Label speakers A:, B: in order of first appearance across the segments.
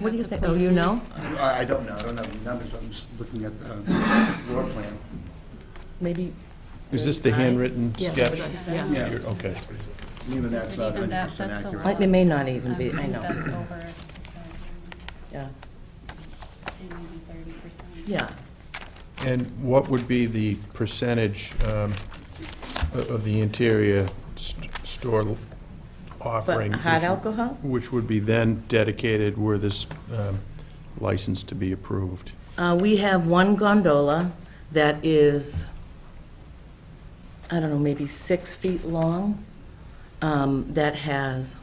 A: What do you think? Oh, you know?
B: I, I don't know, I don't have the numbers, I'm just looking at the floor plan.
A: Maybe.
C: Is this the handwritten
A: Yeah.
C: sketch?
A: Yeah.
B: Yeah.
C: You're- Okay.
B: Even that's not
D: Even that-
B: 100%
D: that's a
B: accurate.
D: lot.
A: Like, It may not even be, I know.
D: That's over,
A: Yeah.
D: maybe thirty percent.
A: Yeah.
C: And what would be the percentage um, o- of the interior st- store
A: But
C: offering?
A: hard
C: which-
A: alcohol?
C: Which would be then dedicated were this um, license to be approved?
A: Uh, We have one gondola that is, I don't know, maybe six feet long, um, that has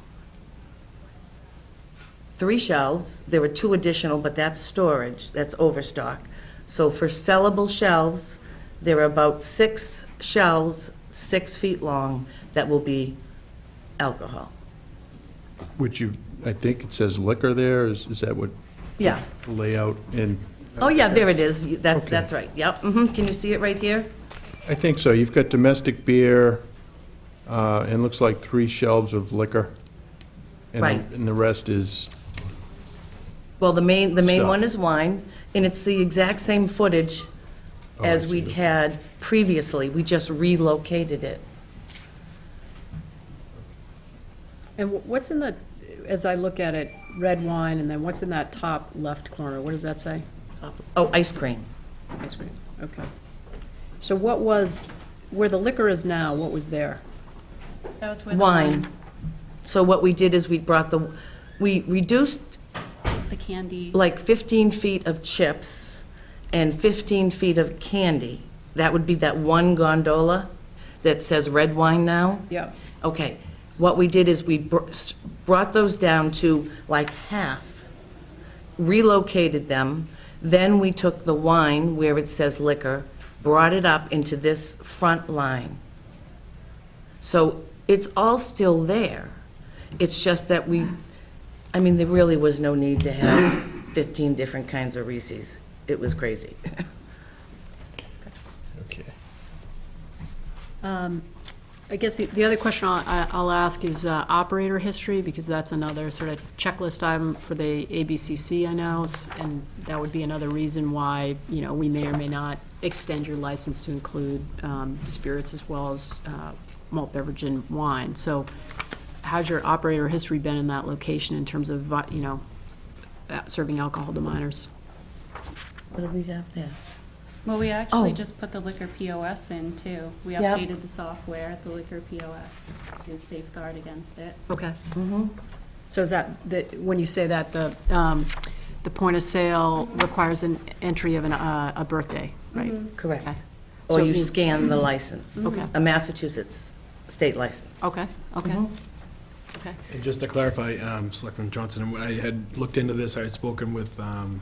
A: three shelves. There were two additional, but that's storage, that's overstock. So for sellable shelves, there are about six shelves, six feet long, that will be alcohol.
C: Which you, I think it says liquor there, is is that what
A: Yeah.
C: layout? And
A: Oh, yeah, there it is. That,
C: Okay.
A: that's right. Yep. mhm. Can you see it right here?
C: I think so. You've got domestic beer, uh, and looks like three shelves of liquor. and the-
A: Right.
C: And the rest is
A: Well, the main, the main
C: Stuff.
A: one is wine, and it's the exact same footage
C: Oh, I
A: as we
C: see.
A: had previously. We just relocated it.
E: And wh- what's in the, as I look at it, red wine, and then what's in that top left corner? What does that say?
A: Oh, ice cream.
E: Ice cream, okay. So what was, where the liquor is now, what was there?
D: That was with
A: Wine. So what we did is we brought the, we reduced
D: The candy.
A: like 15 feet of chips and 15 feet of candy. That would be that one gondola that says red wine now.
E: Yeah.
A: Okay, what we did is we br- s- brought those down to like half, relocated them, then we took the wine where it says liquor, brought it up into this front line. So it's all still there. It's just that we, I mean, there really was no need to have 15 different kinds of Reese's. It was crazy.
C: Okay.
E: Um, I guess the- the other question I'll- I- I'll ask is uh, operator history, because that's another sort of checklist item for the ABCC, I know, s- and that would be another reason why, you know, we may or may not extend your license to include um, spirits as well as uh, malt beverage and wine. So how's your operator history been in that location in terms of, vi- you know, uh, serving alcohol to minors?
A: What do we have there?
D: Well, we actually
A: Oh.
D: just put the liquor POS in too. We
A: Yep.
D: updated the software, the liquor POS, to safeguard against it.
E: Okay. Mm-hmm. So is that, the- when you say that, the, um, the point of sale requires an entry of an, uh, a birthday, right?
A: Correct.
E: Okay.
A: Mm-hmm. Or
E: So
A: you
E: it means-
A: scan the license.
E: Okay.
A: A Massachusetts state license.
E: Okay, okay,
A: Mhm.
E: okay.
F: And just to clarify, um, Selectman Johnson, I had looked into this, I had spoken with, um,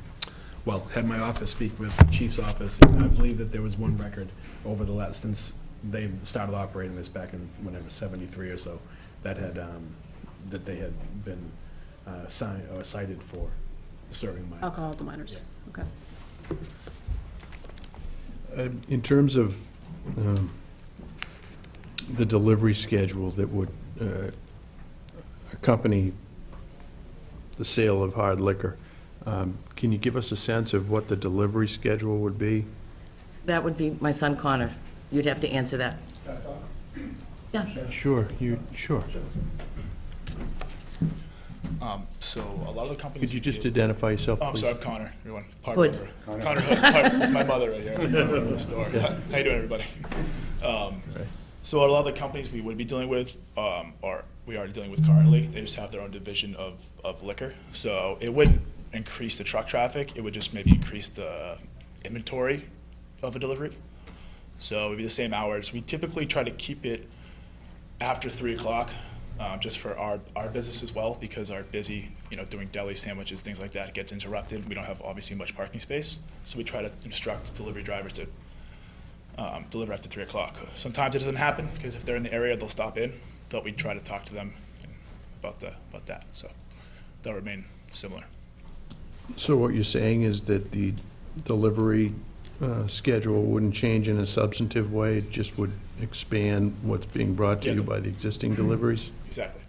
F: well, had my office speak with the chief's office, and I believe that there was one record over the last, since they started operating this back in whenever, seventy-three or so, that had, um, that they had been uh, signed, or cited for serving minors.
E: Alcohol to minors, okay.
C: Um, In terms of um, the delivery schedule that would uh, accompany the sale of hard liquor, um, can you give us a sense of what the delivery schedule would be?
A: That would be my son Connor. You'd have to answer that. Yeah.
C: Sure, you, sure.
G: Um, so a lot of the companies.
C: Could you
G: do-
C: just identify yourself,
G: Oh, I'm
C: please?
G: sorry, I'm Connor, everyone. Pod
A: Hood.
G: member. Connor Hood, pod- it's my mother right here, in the store. How you doing, everybody? Um, So a lot of the companies we would be dealing with, um, are, we are dealing with currently, they just have their own division of, of liquor. So it wouldn't increase the truck traffic, it would just maybe increase the inventory of a delivery. So it'd be the same hours. We typically try to keep it after three o'clock, um, just for our, our business as well, because our busy, you know, doing deli sandwiches, things like that gets interrupted. We don't have obviously much parking space, so we try to instruct delivery drivers to um, deliver after three o'clock. Sometimes it doesn't happen because if they're in the area, they'll stop in, but we try to talk to them about the about that. So they'll remain similar.
C: So what you're saying is that the delivery uh, schedule wouldn't change in a substantive way, it just would expand what's being brought to
G: Yeah,
C: you
G: the-
C: by the existing deliveries?
G: Exactly.